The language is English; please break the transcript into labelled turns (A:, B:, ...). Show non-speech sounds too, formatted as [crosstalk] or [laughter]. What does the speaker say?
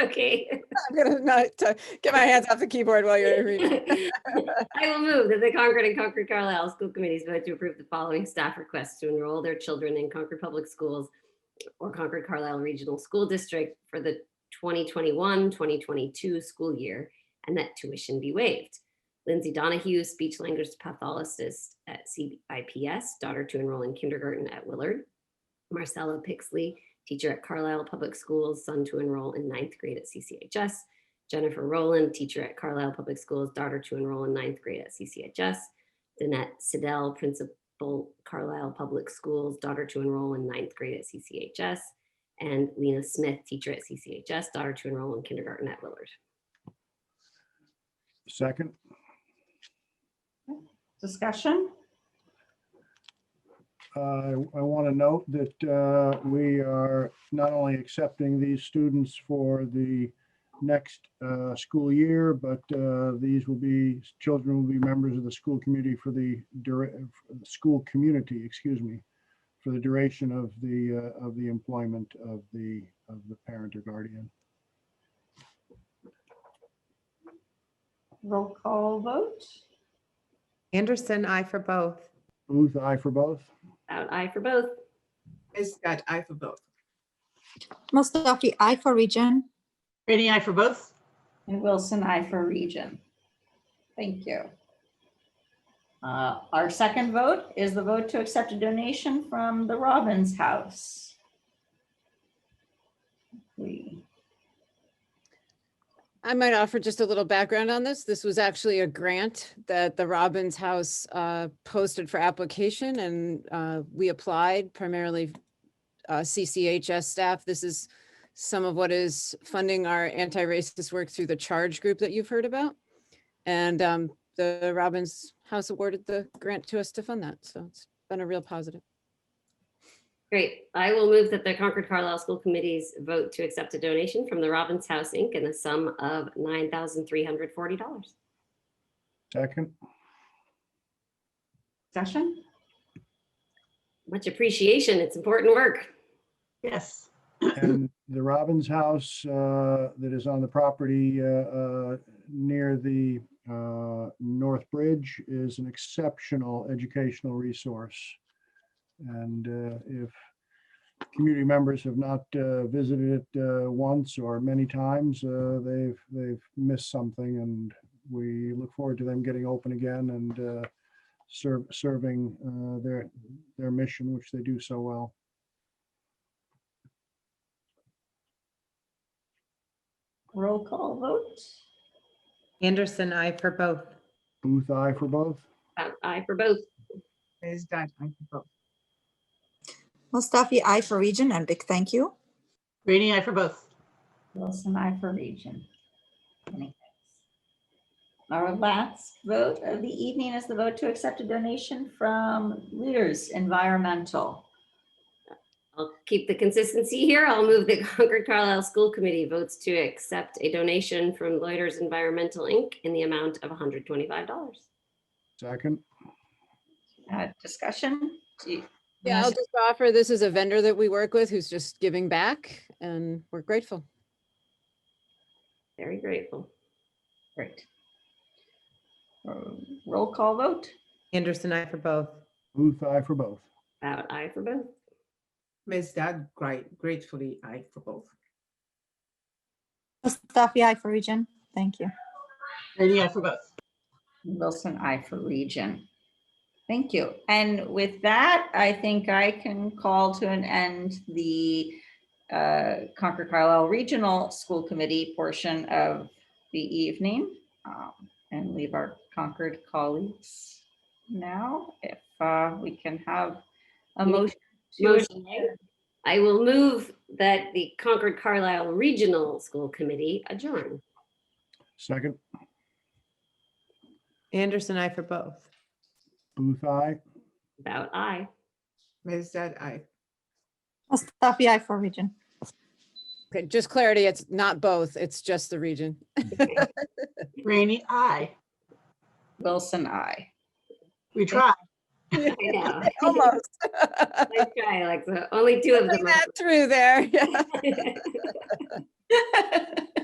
A: [laughs] okay.
B: I'm gonna not uh, get my hands off the keyboard while you're reading.
A: [laughs] I will move that the Concord and Concord Carlisle School Committees vote to approve the following staff requests to enroll their children in Concord Public Schools or Concord Carlisle Regional School District for the 2021, 2022 school year, and that tuition be waived. Lindsay Donahue, speech language pathologist at CIPS, daughter to enroll in kindergarten at Willard. Marcella Pixley, teacher at Carlisle Public Schools, son to enroll in ninth grade at CCHS. Jennifer Rowland, teacher at Carlisle Public Schools, daughter to enroll in ninth grade at CCHS. Danette Siddell, principal, Carlisle Public Schools, daughter to enroll in ninth grade at CCHS. And Lena Smith, teacher at CCHS, daughter to enroll in kindergarten at Willard.
C: Second,
D: Discussion?
C: uh, I want to note that uh, we are not only accepting these students for the next uh, school year, but uh, these will be, children will be members of the school community for the, dura- for the school community, excuse me, for the duration of the, uh, of the employment of the, of the parent or guardian.
D: Roll call vote?
E: Anderson, I for both.
C: Booth, aye for both?
A: Out aye for both.
F: Ms. Scott, I for both.
G: Mustafi, I for region.
H: Rainey, I for both.
D: And Wilson, I for region. Thank you. Uh, Our second vote is the vote to accept a donation from the Robbins House. We,
B: [laughs] I might offer just a little background on this. This was actually a grant that the Robbins House uh, posted for application and uh, we applied primarily uh, CCHS staff. This is some of what is funding our anti-racist work through the charge group that you've heard about. And um, the Robbins House awarded the grant to us to fund that. So it's been a real positive.
A: Great. I will move that the Concord Carlisle School Committee's vote to accept a donation from the Robbins House, Inc. in the sum of $9,340.
C: Second,
D: discussion?
A: Much appreciation. It's important work.
H: Yes.
C: And the Robbins House uh, that is on the property uh, uh, near the uh, North Bridge is an exceptional educational resource. And uh, if community members have not uh, visited it uh, once or many times, uh, they've, they've missed something. And we look forward to them getting open again and uh, serve, serving uh, their, their mission, which they do so well.
D: Roll call vote?
E: Anderson, I for both.
C: Booth, aye for both.
A: Out aye for both.
F: Ms. Scott, I for both.
G: Mustafi, I for region, and big thank you.
H: Rainey, I for both.
D: Wilson, I for region. Many thanks. Our last vote of the evening is the vote to accept a donation from Leaders Environmental.
A: I'll keep the consistency here. I'll move the [laughs] Concord Carlisle School Committee votes to accept a donation from Loiters Environmental Inc. in the amount of $125.
C: Second.
D: Uh, Discussion? Do you-
B: Yeah, I'll
D: Yes.
B: just offer, this is a vendor that we work with who's just giving back and we're grateful.
A: Very grateful.
D: Great. Uh, Roll call vote?
E: Anderson, I for both.
C: Booth, aye for both.
A: About aye for both.
F: Ms. Scott, great, gratefully, I for both.
G: Mustafi, I for region. Thank you.
H: Rainey, I for both.
D: Wilson, I for region. Thank you. And with that, I think I can call to an end the uh, Concord Carlisle Regional School Committee portion of the evening um, and leave our Concord colleagues now, if uh, we can have
A: Yeah.
D: a motion. to
A: Motion. I will move that the Concord Carlisle Regional School Committee adjourn.
C: Second,
E: Anderson, I for both.
C: Booth, aye.
A: About aye.
F: Ms. Scott, I.
G: Mustafi, I for region.
B: Okay, just clarity, it's not both, it's just the region.
H: Rainey, I.
D: Wilson, I.
H: We try.
A: I know. [laughs]
B: Almost.
A: Nice try, Alexa. Only two of them.
B: Putting [laughs] that through there, yeah.
A: are-
E: [laughs]